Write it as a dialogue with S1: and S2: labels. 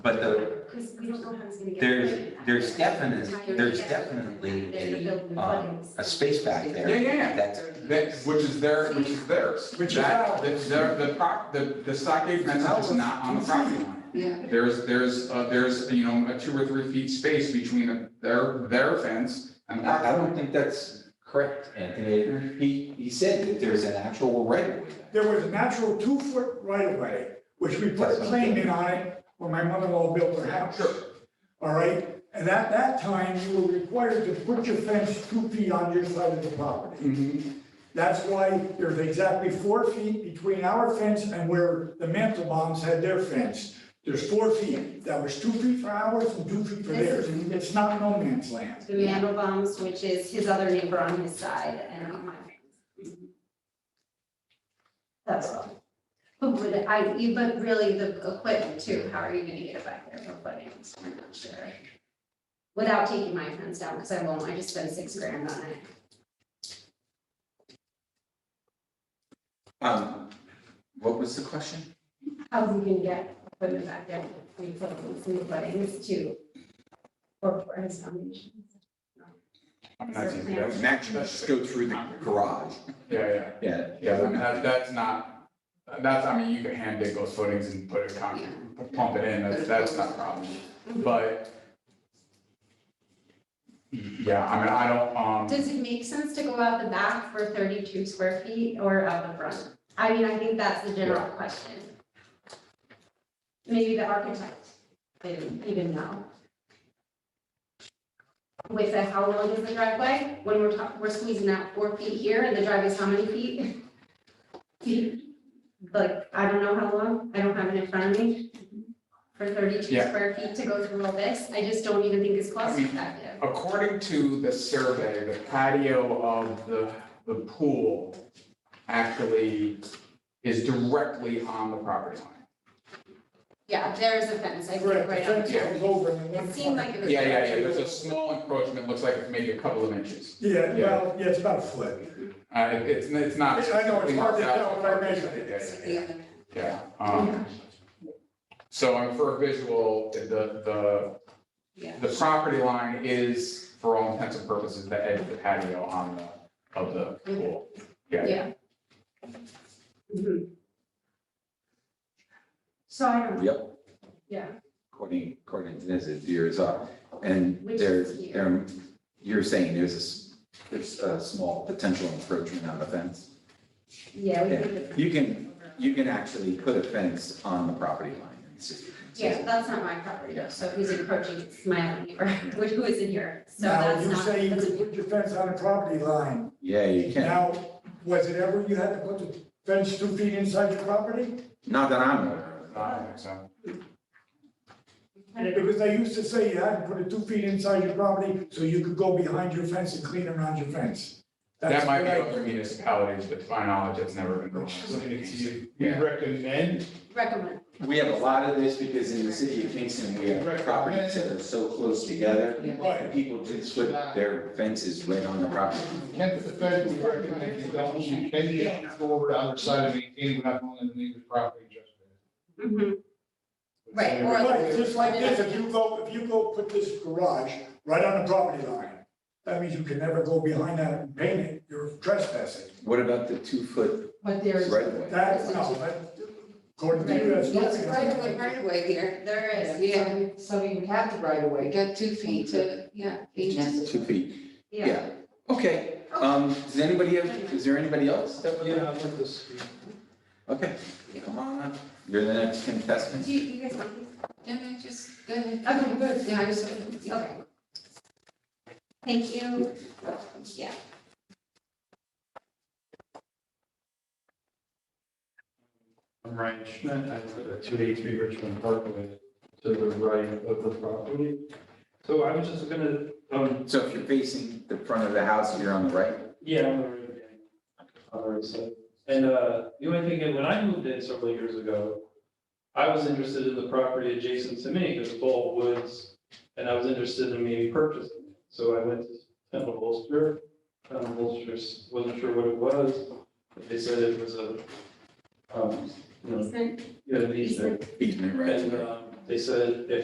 S1: someone's gonna get.
S2: There's,
S1: pregnant.
S2: there's definitely, there's
S1: They're
S2: definitely
S1: gonna build new
S2: a, um,
S1: buildings.
S2: a space back
S3: Yeah,
S2: there.
S3: yeah,
S2: That's,
S3: that, which is their, which is theirs.
S4: Which is
S3: That,
S4: ours.
S3: the, the, the prop, the, the stockade fence is not on the property line.
S5: Yeah.
S3: There's, there's, uh, there's, you know, a two or three feet space between the- their, their fence and the property.
S2: I, I don't think that's correct, Anthony. He, he said that there's an actual right of way. there.
S4: There was a natural two-foot right-of-way, which we put a claim in on it when my mother-in-law built her house. All right, and at that time, you were required to put your fence two feet on your side of the property.
S3: Mhm.
S4: That's why there's exactly four feet between our fence and where the Mantelbaums had their fence. There's four feet. That was two feet for ours and two feet for theirs. It's not no man's land.
S1: The Mandelbaums, which is his other neighbor on his side and on my. Mm-hmm. That's all. But would I, you, but really the equipment too, how are you gonna get it back there for footings? I'm not sure. Without taking my fence down, because I won't, I just spent six grand on it.
S2: Um, what was the question?
S1: How we can get equipment back there, we put some footings to, or for his foundation.
S2: I'm not saying that. Max, just go through the garage.
S3: Yeah, yeah.
S2: Yeah,
S3: Yeah, I mean, that, that's not, that's, I mean, you can hand dig those footings and put a concrete, pump it in, that's, that's not a problem, but. Yeah, I mean, I don't, um.
S1: Does it make sense to go out the back for thirty-two square feet or out the front? I mean, I think that's the general question. Maybe the architect didn't even know. With the, how long is the driveway? When we're talking, we're squeezing out four feet here and the driveway's how many feet? Feet? Like, I don't know how long, I don't have it in front of me. For thirty-two
S3: Yeah.
S1: square feet to go through all this, I just don't even think it's cost
S3: I mean,
S1: effective.
S3: According to the survey, the patio of the, the pool actually is directly on the property line.
S1: Yeah, there is a fence, I think,
S4: Right, the
S1: right on
S4: fence
S1: here.
S4: goes over and then.
S1: It seemed like it was.
S3: Yeah, yeah, yeah, there's a small encroachment, looks like it's maybe a couple of inches.
S4: Yeah, well, yeah, it's about a foot.
S3: Uh, it- it's, it's not.
S4: I know, it's hard to tell when I measure it.
S3: Yeah, yeah, yeah. Yeah, um, so um, for a visual, the, the,
S1: Yeah.
S3: the property line is, for all intents and purposes, the edge of the patio on the, of the pool. Yeah, yeah.
S1: Yeah. Mhm. So I don't,
S2: Yep.
S1: yeah,
S2: according, according to this, it's years up. And
S1: Which
S2: there's,
S1: is here.
S2: um, you're saying there's a, s- there's a small potential encroachment on the fence?
S1: yeah, we
S2: Yeah.
S1: did the.
S2: You can- You can actually put a fence on the property line. It's just-
S1: Yeah, that's not my property, though, so who's encroaching, it's my own neighbor, which who is in here, so
S4: Now,
S1: that's
S4: you
S1: not.
S4: say you
S1: that's-
S4: could put your fence on a property line.
S2: Yeah, you can.
S4: Now, was it ever you had to put the fence two feet inside your property?
S2: Not that I'm aware of.
S3: I think so.
S1: I don't know.
S4: Because they used to say you had to put it two feet inside your property so you could go behind your fence and clean around your fence.
S3: That might be
S4: That's what I-
S3: other municipalities, but to my knowledge, it's never been.
S6: You
S3: Yeah.
S6: recommend,
S1: Recommend,
S2: We have a lot of this because in the city of Kingston, we have properties that are so close together.
S4: Right.
S2: and People just put their fences right on the property.
S6: can't the fed, we recommend, you don't, you can get forward on the side of eighteen, without going into the neighbor's property
S1: Mhm.
S6: adjustment.
S1: Right, or-
S4: Right, just like this, if you go, if you go put this garage right on the property line, that means you can never go behind that and paint it, you're trespassing.
S2: What about the two-foot
S7: But there's,
S2: right of way?
S4: That, no, that, according to you, that's.
S7: That's
S4: nothing.
S7: right away.
S1: right away here, there is, yeah,
S7: yeah, so you have the right of way.
S5: Got two feet to, yeah, feet
S2: Two feet,
S1: yeah.
S2: yeah. Okay, um, does anybody have, is there anybody else that would?
S6: Yeah, I'm with this.
S2: Okay, come on, up. you're the next contestant.
S1: Do you, you guys want these?
S5: Yeah, no, just, go ahead.
S1: Okay, good.
S5: Yeah, I just.
S1: Okay. Thank you. Yeah.
S6: I'm Ryan Schmidt, I live at two eighty-three Richmond Parkway, to the right of the property. So I was just gonna, um,
S2: So if you're facing the front of the house, you're on the right?
S6: yeah, I'm gonna read it again. All right, so, and, uh, the only thing, and when I moved in several years ago, I was interested in the property adjacent to me, because it's all woods, and I was interested in maybe purchasing it. So I went to Temple Holster, Temple Holster wasn't sure what it was, but they said it was a, um, you know,
S1: Easement.
S6: you know, these,
S2: Easement right of way.
S6: and, um, they said if